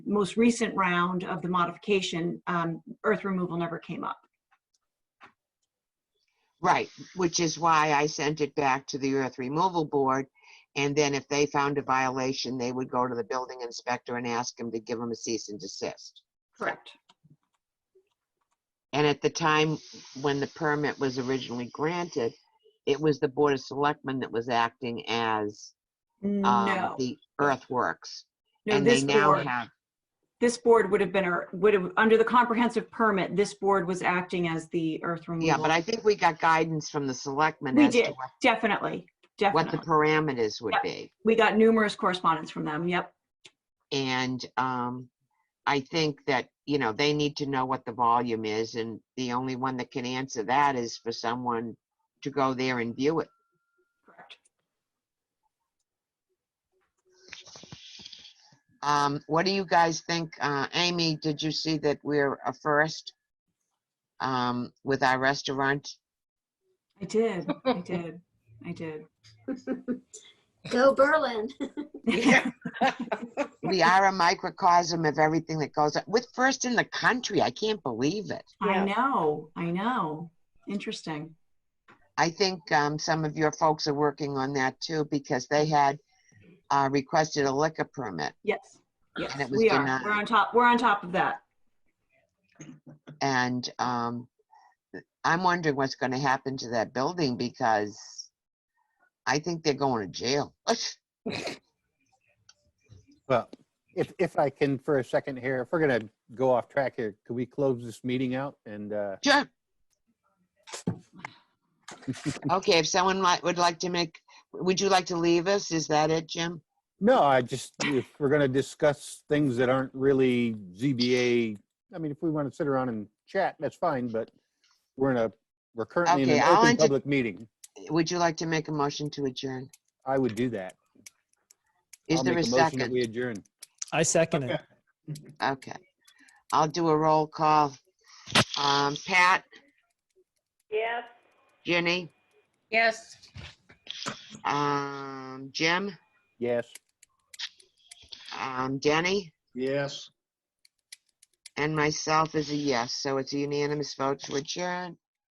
most recent round of the modification, um, earth removal never came up. Right, which is why I sent it back to the earth removal board. And then if they found a violation, they would go to the building inspector and ask him to give them a cease and desist. Correct. And at the time when the permit was originally granted, it was the Board of Selectmen that was acting as um, No, the earthworks. no, And they this now board, have, this board would have been, a- would have, under the comprehensive permit, this board was acting as the earth removal. yeah, but I think we got guidance from the selectmen We as to did, what- Definitely, what the definitely. parameters would be. We got numerous correspondence from them, yep. And um, I think that, you know, they need to know what the volume is, and the only one that can answer that is for someone to go there and view it. Correct. Um, what do you guys think? Uh, Amy, did you see that we're a first um, with our restaurant? I did, I did, I did. Go Berlin. We are a microcosm of everything that goes on. With first in the country, I can't believe it. I know, I know. Interesting. I think um, some of your folks are working on that too because they had uh, requested a liquor permit. Yes, yes, And it was we are. denied. We're on top, we're on top of that. And um, I'm wondering what's going to happen to that building because I think they're going to jail. Well, if, if I can for a second here, if we're gonna go off track here, could we close this meeting out and, uh, Sure. Okay, if someone might, would like to make, would you like to leave us? Is that it, Jim? no, I just, if we're gonna discuss things that aren't really ZBA, I mean, if we want to sit around and chat, that's fine, but we're in a, we're currently in Okay, an I'll open enter- public meeting. Would you like to make a motion to adjourn? I would do that. Is I'll there a make motion that We second? adjourn. I second it. Okay. I'll do a roll call. Um, Pat, Yes. Ginny, Yes. um, Jim, Yes. um, Denny, Yes. and myself is a yes. So it's a unanimous vote to adjourn.